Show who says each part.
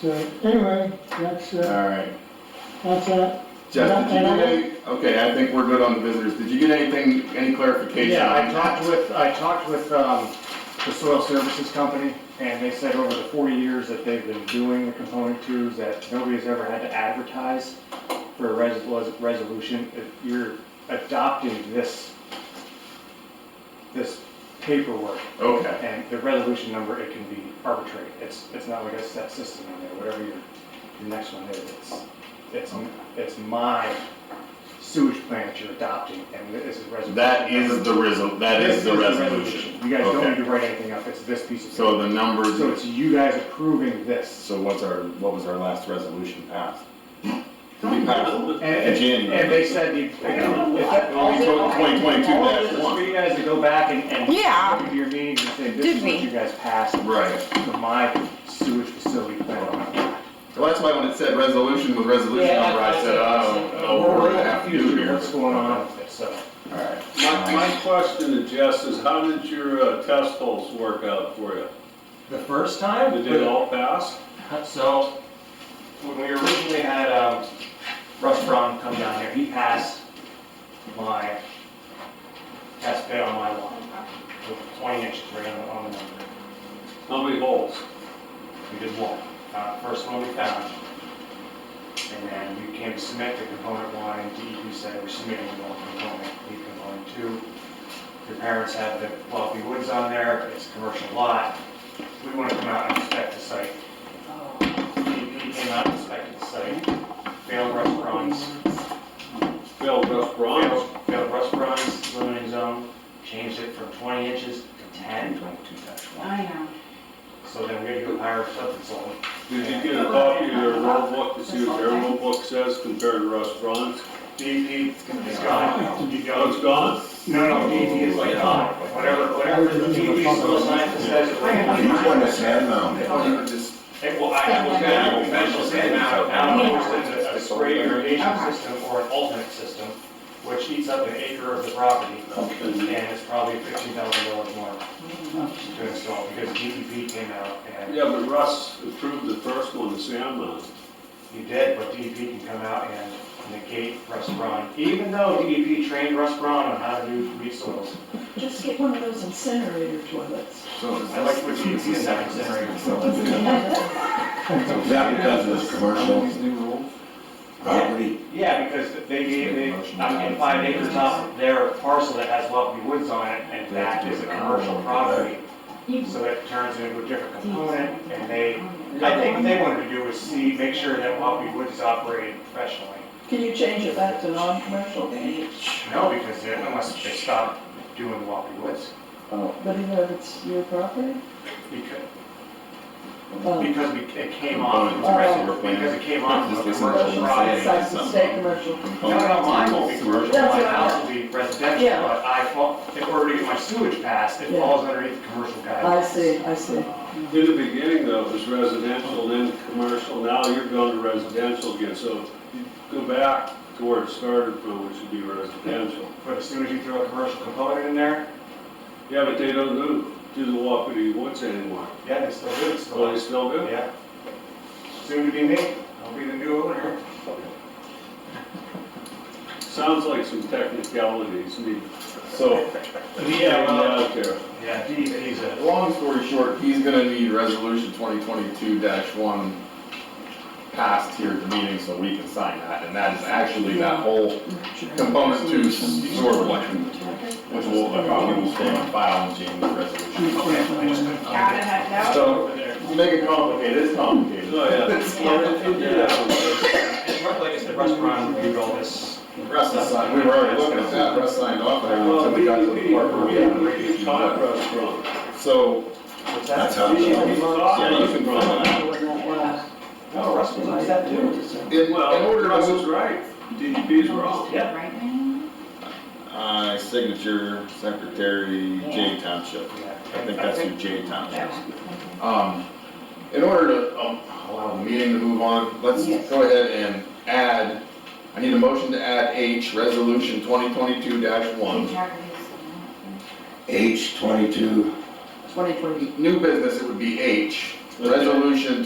Speaker 1: So anyway, that's, uh,
Speaker 2: All right.
Speaker 1: that's that.
Speaker 2: Jeff, did you
Speaker 1: And I-
Speaker 2: get any, okay, I think we're good on the visitors. Did you get anything, any clarification?
Speaker 3: Yeah, I
Speaker 2: on
Speaker 3: talked
Speaker 2: that?
Speaker 3: with, I talked with, um, the soil services company, and they said over the four years that they've been doing the component twos, that nobody's ever had to advertise for a res- res- resolution. If you're adopting this, this paperwork,
Speaker 2: Okay,
Speaker 3: and the resolution number, it can be arbitrary. It's, it's not like a set system in there, whatever your, your next one is, it's, it's, it's my sewage plan that you're adopting, and this is resolution.
Speaker 2: that
Speaker 3: number.
Speaker 2: is the resol, that
Speaker 3: This
Speaker 2: is the resolution.
Speaker 3: You guys don't
Speaker 2: Okay.
Speaker 3: need to write anything up, it's this piece of.
Speaker 2: So the
Speaker 3: paper. So
Speaker 2: numbers,
Speaker 3: it's you guys approving this.
Speaker 4: So what's our, what was our last resolution passed?
Speaker 2: we passed
Speaker 3: And, and and
Speaker 4: January.
Speaker 3: they said, you- if that- all they- all
Speaker 2: twenty twenty-two
Speaker 3: it is
Speaker 2: dash
Speaker 3: is for
Speaker 2: one.
Speaker 3: you guys to go back and, and.
Speaker 5: Yeah.
Speaker 3: go to Your meetings and say, this
Speaker 5: Did
Speaker 3: is what
Speaker 5: we?
Speaker 3: you guys passed
Speaker 2: Right.
Speaker 3: for my sewage facility plan.
Speaker 2: Well, that's why when it said resolution with resolution
Speaker 6: Yeah,
Speaker 2: number, I said, I don't know what Oh,
Speaker 3: We're
Speaker 2: we're gonna
Speaker 3: really
Speaker 2: have to do
Speaker 3: confused with
Speaker 2: here.
Speaker 3: what's going on with it, so.
Speaker 2: All right.
Speaker 7: My, my question to Jess is, how did your uh, test holes work out for you?
Speaker 3: The first time?
Speaker 7: Did it all pass?
Speaker 3: So, when we originally had, um, Russ Brown come down here, he passed my test bed on my lawn with twenty inches right on, the- on the number.
Speaker 7: How many holes?
Speaker 3: We did one, uh, first one we found. And then we came to submit the component one, and DEP said we're submitting the wrong component, we component two. Your parents have the Lovely Woods on there, it's a commercial lot, we want to come out and inspect the site. DEP came out and inspected the site, failed restaurants,
Speaker 7: Failed rough bronze?
Speaker 3: failed, failed restaurants, limiting zone, changed it from twenty inches to ten. Twenty-two
Speaker 6: I know.
Speaker 3: So then we had to go hire a substance zone.
Speaker 7: Did you get a copy of their road book to see what their road book says compared to rough bronze?
Speaker 3: DEP is gone, you
Speaker 7: Oh,
Speaker 3: go,
Speaker 7: it's gone?
Speaker 3: No, no, DEP is like, oh, whatever, whatever the DEP soil scientist says. it's like,
Speaker 4: You want a sand mound?
Speaker 3: Oh, Hey, well, I was gonna mention that now, now we're in a spray irrigation system or an alternate system, which eats up an acre of the property, and it's probably fifteen thousand dollars more to install, because DEP came out and
Speaker 7: Yeah, but Russ approved the first one, the sand mound.
Speaker 3: he did, but DEP can come out and negate Russ Braun, even though DEP trained Russ Braun on how to do reed soils.
Speaker 8: Just get one of those incinerator toilets.
Speaker 4: So is
Speaker 3: I like what DEP is saying,
Speaker 4: that because of this commercial property?
Speaker 3: Yeah, because they gave, they, I'm in five acres off their parcel that has lovely woods on it, and that is a commercial property. So it turns into a different component, and they, I think what they wanted to do was see, make sure that lovely woods is operated professionally.
Speaker 8: Can you change it back to non-commercial?
Speaker 3: No, because they- unless they stop doing lovely woods,
Speaker 8: Oh, but even if it's your property?
Speaker 3: because,
Speaker 8: Um,
Speaker 3: because we, it came on,
Speaker 8: Oh.
Speaker 3: because it came on
Speaker 4: Just listen
Speaker 3: a
Speaker 4: to
Speaker 3: commercial Oh,
Speaker 4: what I'm saying.
Speaker 3: property.
Speaker 8: It's like the state commercial.
Speaker 3: No, no, mine won't be commercial, my
Speaker 8: That's what I
Speaker 3: house will be residential,
Speaker 8: Yeah.
Speaker 3: but I, fall- in order to get my sewage passed, it
Speaker 8: Yeah.
Speaker 3: falls underneath the commercial guidelines. Um,
Speaker 8: I see, I see.
Speaker 7: In the beginning though, it was residential, then commercial, now you're going to residential again, so you go back to where it started from, which would be residential.
Speaker 3: But as soon as you throw a commercial component in there,
Speaker 7: Yeah, but they don't do, do the Wapiti Woods anymore.
Speaker 3: yeah, they still do, it's still,
Speaker 7: Well, they still do?
Speaker 3: yeah. Soon to be me, I'll be the new owner.
Speaker 7: Sounds like some technicalities need
Speaker 2: So,
Speaker 7: to be out there.
Speaker 3: Yeah, DEP's a,
Speaker 2: long story short, he's gonna need resolution twenty twenty-two one passed here at the meeting so we can sign that, and that is actually that whole component to sewer plan, which will, a copy will stay on file and change the resolution.
Speaker 3: okay, I just couldn't.
Speaker 6: Got it, I doubt it.
Speaker 2: So,
Speaker 3: Over there.
Speaker 2: make it complicated, it's complicated.
Speaker 7: Oh, yeah.
Speaker 2: It's
Speaker 3: And like I said, restaurant reviewed all this.
Speaker 2: Russ is signed, we were already looking at that, Russ signed off, and
Speaker 7: Well,
Speaker 2: we
Speaker 7: we,
Speaker 2: got to the
Speaker 7: we,
Speaker 2: part where
Speaker 7: we have a
Speaker 2: we
Speaker 7: great
Speaker 2: had to.
Speaker 7: contrast from.
Speaker 2: So,
Speaker 3: What's that?
Speaker 4: That's how it's going.
Speaker 2: yeah, you can run that.
Speaker 3: No, Russ was upset too.
Speaker 2: In, in
Speaker 7: Well,
Speaker 2: order to
Speaker 7: Russ
Speaker 2: move
Speaker 7: is right, DEP's wrong.
Speaker 3: Yeah.
Speaker 6: Right now?
Speaker 4: Uh, signature, secretary, J Township. I think that's who J Township
Speaker 6: That
Speaker 4: is.
Speaker 6: one.
Speaker 2: Um, in order to um, allow the meeting to move on, let's go ahead and add, I need a motion to add H, resolution twenty twenty-two
Speaker 6: Keep
Speaker 2: one.
Speaker 6: track of these.
Speaker 4: H twenty-two
Speaker 8: Twenty twenty
Speaker 2: New business, it would be H, resolution